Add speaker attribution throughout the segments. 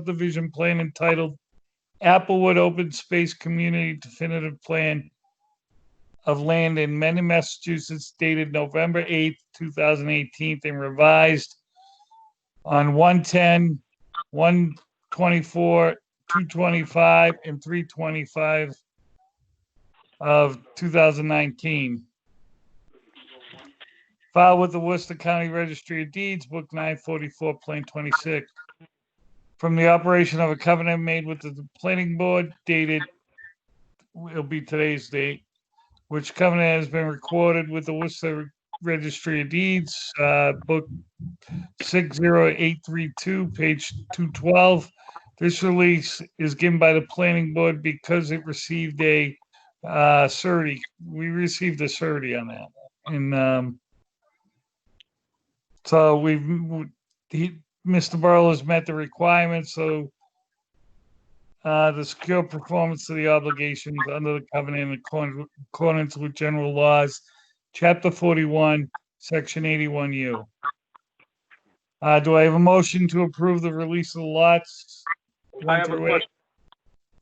Speaker 1: subdivision plan entitled Applewood Open Space Community Definitive Plan of Land in Mendon, Massachusetts dated November eighth, two thousand eighteen, and revised on 110, 124, two twenty-five, and three twenty-five of two thousand nineteen. Filed with the Worcester County Registry of Deeds, Book nine forty-four, Plan twenty-six from the operation of a covenant made with the planning board dated, it'll be today's date, which covenant has been recorded with the Worcester Registry of Deeds, uh, book six zero eight three two, page two twelve. This release is given by the planning board because it received a, uh, surety. We received a surety on that and, um, so we've, he, Mr. Burrow has met the requirements, so uh, the secure performance of the obligations under the covenant in accordance with- accordance with general laws, chapter forty-one, section eighty-one U. Uh, do I have a motion to approve the release of the lots?
Speaker 2: I
Speaker 1: one
Speaker 2: have a
Speaker 1: through eight?
Speaker 2: question.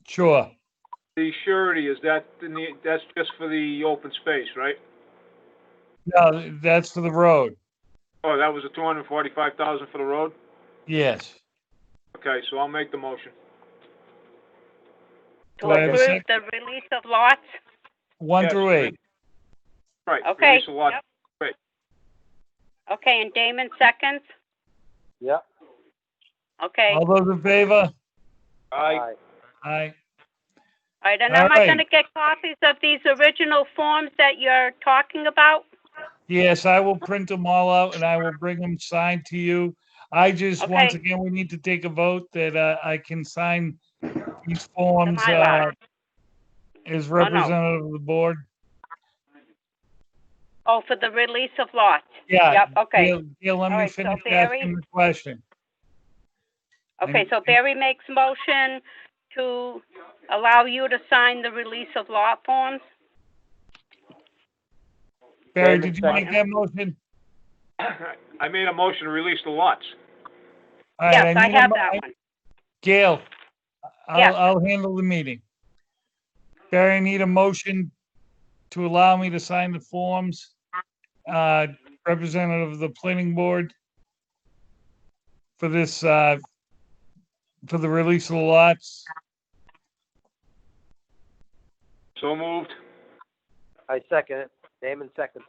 Speaker 1: Sure,
Speaker 2: The surety, is that in the, that's just for the open space, right?
Speaker 1: no, that's for the road,
Speaker 2: Oh, that was a two hundred and forty-five thousand for the road?
Speaker 1: yes.
Speaker 2: Okay, so I'll make the motion.
Speaker 1: Do
Speaker 3: To
Speaker 1: I have a
Speaker 3: approve the release of lots?
Speaker 1: One
Speaker 2: Yes,
Speaker 1: through eight,
Speaker 2: Right.
Speaker 3: Okay,
Speaker 2: release the lot.
Speaker 3: yep.
Speaker 2: Great.
Speaker 3: Okay, and Damon seconds?
Speaker 4: Yep.
Speaker 3: Okay,
Speaker 1: all those in favor?
Speaker 2: I,
Speaker 1: Aye.
Speaker 3: all right, and am I
Speaker 1: Alright.
Speaker 3: gonna get copies of these original forms that you're talking about?
Speaker 1: Yes, I will print them all out and I will bring them signed to you. I just, once
Speaker 3: Okay.
Speaker 1: again, we need to take a vote that uh, I can sign these forms uh,
Speaker 3: Mylar.
Speaker 1: as representative of the board.
Speaker 3: Oh, for the release of lots?
Speaker 1: Yeah.
Speaker 3: Yep, okay,
Speaker 1: Gail- Gail, let me
Speaker 3: Alright, so
Speaker 1: finish
Speaker 3: Barry-
Speaker 1: asking the question.
Speaker 3: okay, so Barry makes motion to allow you to sign the release of lot forms?
Speaker 1: Barry,
Speaker 4: David
Speaker 1: did you make
Speaker 4: second.
Speaker 1: that motion?
Speaker 2: I made a motion to release the lots.
Speaker 1: All right,
Speaker 3: Yes, I
Speaker 1: need a
Speaker 3: have
Speaker 1: mo-
Speaker 3: that one.
Speaker 1: Gail,
Speaker 3: Yeah.
Speaker 1: I'll, I'll handle the meeting. Barry, I need a motion to allow me to sign the forms, uh, representative of the planning board for this, uh, for the release of the lots.
Speaker 2: So moved.
Speaker 4: I second it. Damon seconds.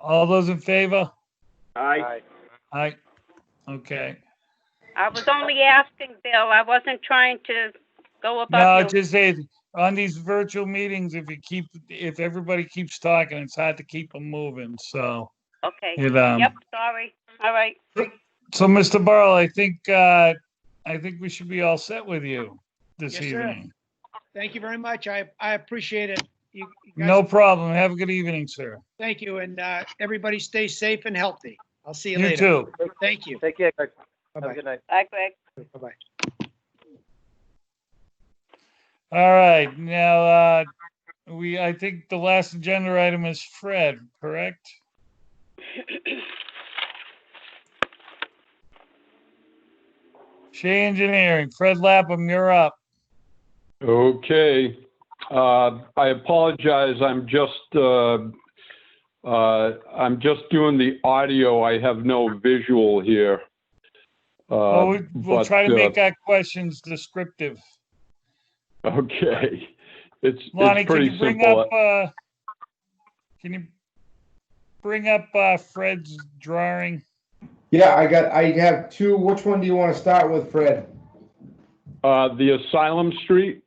Speaker 1: All those in favor?
Speaker 2: I,
Speaker 1: Aye. Okay.
Speaker 3: I was only asking, Bill, I wasn't trying to go
Speaker 1: No,
Speaker 3: above you.
Speaker 1: just say, on these virtual meetings, if you keep, if everybody keeps talking, it's hard to keep them moving, so.
Speaker 3: Okay,
Speaker 1: It, um,
Speaker 3: yep, sorry, all right.
Speaker 1: So, Mr. Burrow, I think, uh, I think we should be all set with you this
Speaker 5: Yes, sir.
Speaker 1: evening.
Speaker 5: Thank you very much. I, I appreciate it. You you guys-
Speaker 1: No problem. Have a good evening, sir.
Speaker 5: Thank you, and uh, everybody stay safe and healthy. I'll see you
Speaker 1: You
Speaker 5: later.
Speaker 1: too.
Speaker 5: Thank you.
Speaker 4: Take care, guys. Have a
Speaker 5: Bye-bye.
Speaker 4: good night.
Speaker 3: Bye, Greg.
Speaker 5: Bye-bye.
Speaker 1: All right, now, uh, we, I think the last agenda item is Fred, correct? Shea Engineering, Fred Lapham, you're up.
Speaker 6: Okay, uh, I apologize, I'm just, uh, uh, I'm just doing the audio, I have no visual here.
Speaker 1: Well,
Speaker 6: Uh,
Speaker 1: we- we'll
Speaker 6: but,
Speaker 1: try to
Speaker 6: uh,
Speaker 1: make our questions descriptive.
Speaker 6: Okay, it's,
Speaker 1: Lonnie,
Speaker 6: it's
Speaker 1: can you
Speaker 6: pretty
Speaker 1: bring
Speaker 6: simple.
Speaker 1: up, uh, can you bring up, uh, Fred's drawing?
Speaker 7: Yeah, I got, I have two. Which one do you want to start with, Fred?
Speaker 6: Uh, the Asylum Street,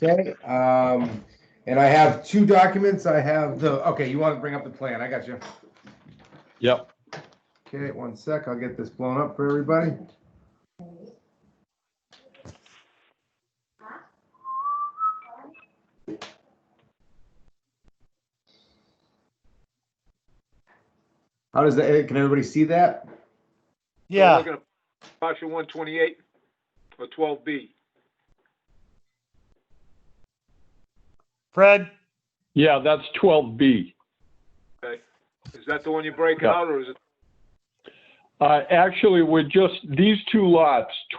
Speaker 7: Okay, um, and I have two documents. I have the, okay, you want to bring up the plan. I got you.
Speaker 6: yep,
Speaker 7: Okay, one sec. I'll get this blown up for everybody. How does that, can everybody see that?
Speaker 2: We're looking at Partial one twenty-eight or twelve B.
Speaker 1: Fred?
Speaker 6: yeah, that's 12B.
Speaker 2: Is that the one you're breaking
Speaker 6: Yeah.
Speaker 2: out or is it?
Speaker 6: Uh, Actually, we're just, these two lots,